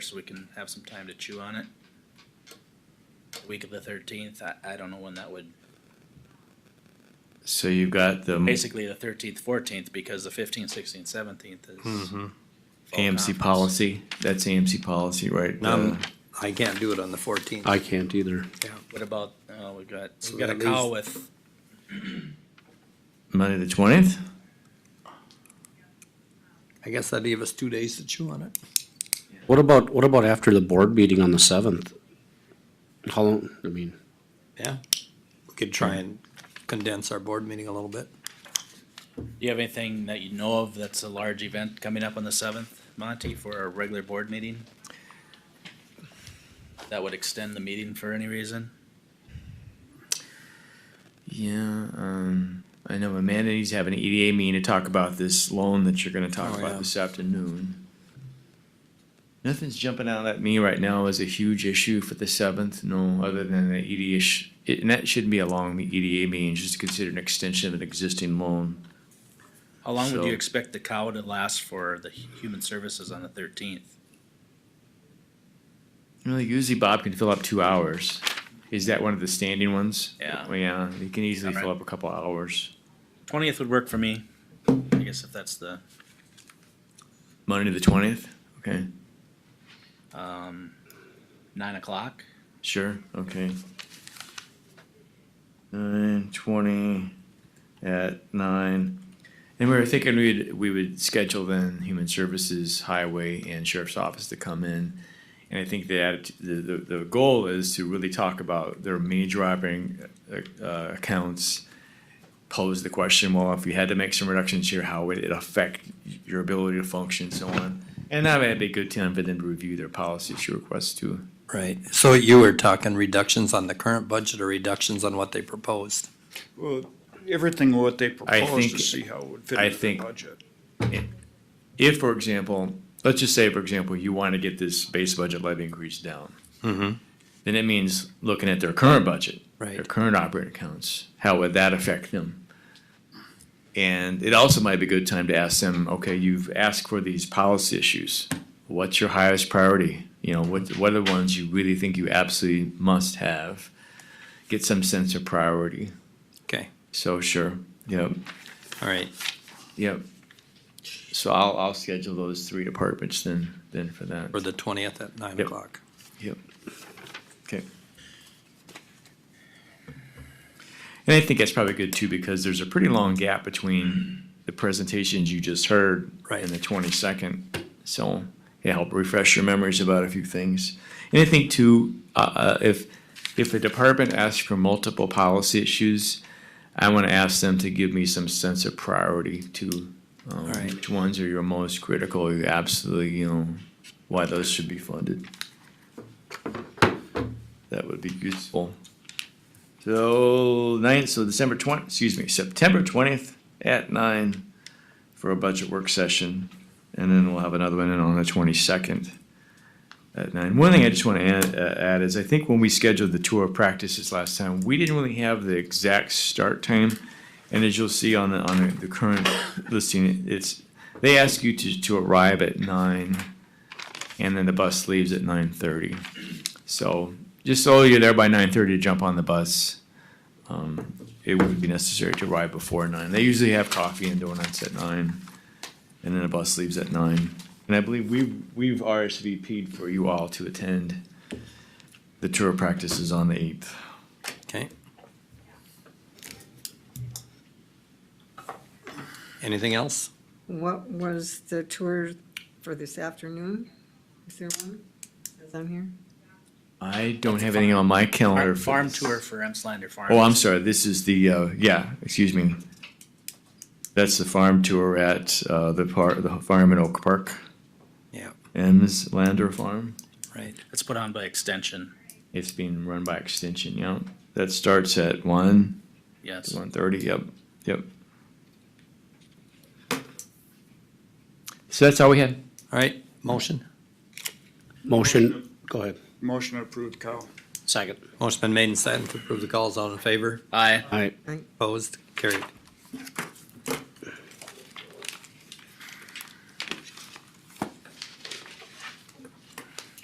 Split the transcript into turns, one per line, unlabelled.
so we can have some time to chew on it. Week of the thirteenth, I, I don't know when that would,
So you've got the
basically the thirteenth, fourteenth, because the fifteenth, sixteenth, seventeenth is.
Mm-hmm.
fall
AMC
conference.
policy. That's AMC policy, right? Uh,
Um,
The-
I can't do it on the fourteenth.
I can't either.
What about, uh, we've got,
So
we've got a
that
call with,
Monday the twentieth?
I guess that'd give us two days to chew on it.
What about, what about after the board meeting on the seventh? How long, I mean,
Yeah. We could try and condense our board meeting a little bit.
do you have anything that you know of that's a large event coming up on the seventh, Monty, for our regular board meeting? That would extend the meeting for any reason?
Yeah, um, I know Amanda needs to have an EDA meeting to talk about this loan that you're gonna talk
Oh,
about
yeah.
this afternoon. Nothing's jumping out at me right now as a huge issue for the seventh, no, other than the EDA, sh- it- and that shouldn't be E a long EDA meeting, just to consider an extension of an existing loan.
How long would
So-
you expect the cow to last for the hu- human services on the thirteenth?
Really, usually Bob can fill up two hours. Is that one of the standing ones?
Yeah.
Well, Yeah, he can easily fill
Alright.
up a couple hours.
Twentieth would work for me, I guess if that's the,
Monday the twentieth? Okay,
um, nine o'clock.
sure, okay. Nine twenty at nine. And we were thinking we'd, we would schedule then Human Services, Highway and Sheriff's Office to come in. And I think that the, the, the goal is to really talk about their major operating uh, uh, accounts. Pose the question, well, if you had to make some reductions here, how would it affect your ability to function and so on? And that would be a good time for them to review their policy issue requests too.
Right. So you were talking reductions on the current budget or reductions on what they proposed?
Well, everything what they
think-
proposed to see how it would fit
I
into the
think-
budget.
If, for example, let's just say, for example, you want to get this base budget levy increase down. Then it means looking at their current budget. Their
Right.
current operating accounts, how would that affect them? And it also might be a good time to ask them, okay, you've asked for these policy issues. What's your highest priority? You know, what, what are the ones you really think you absolutely must have? Get some sense of priority.
Okay,
So sure, yep,
all right.
yep. So I'll, I'll schedule those three departments then, then for that.
For the twentieth at nine
Yep.
o'clock.
Yep. Okay. And I think that's probably good too, because there's a pretty long gap between the presentations you just heard
Right.
and the twenty-second. So it helped refresh your memories about a few things. And I think too, uh, uh, if, if a department asks for multiple policy issues, I want to ask them to give me some sense of priority to, um,
right.
which ones are your most critical, you absolutely, you know, why those should be funded. That would be useful. So ninth, so December twenty, excuse me, September twentieth at nine for a budget work session. And then we'll have another one in on the twenty-second at nine. Uh, One thing I just want to add, uh, add is I think when we scheduled the tour of practices last time, we didn't really have the exact start time. And as you'll see on the, on the- the current listing, it's, they ask you to, to arrive at nine and then the bus leaves at nine thirty. So just so you're there by nine thirty to jump on the bus. Um, it would be necessary to arrive before nine. They usually have coffee and donuts at nine, and then the bus leaves at nine. And I believe we we've RSVP'd for you all to attend. The tour of practice is on the eighth.
Okay. Anything else?
What was the tour for this afternoon? Is there one? Is on here?
I don't have anything on my
Farm
calendar. for
farm
this.
tour for Emslander Farm.
Oh, I'm sorry. This is the uh, yeah. Excuse me. That's the farm tour at uh, the park, the farm in Oak Park.
Yeah,
M's Lander Farm.
right.
It's put on by extension,
It's being run by Extension, yeah. That starts at one,
yes.
one thirty, yep, yep. So that's all we had.
All right, motion.
motion, go ahead.
Motion approved, Kyle.
Second.
Motion been made and seconded to approve the calls. All in favor?
Aye.
All right,
Opposed? Carried.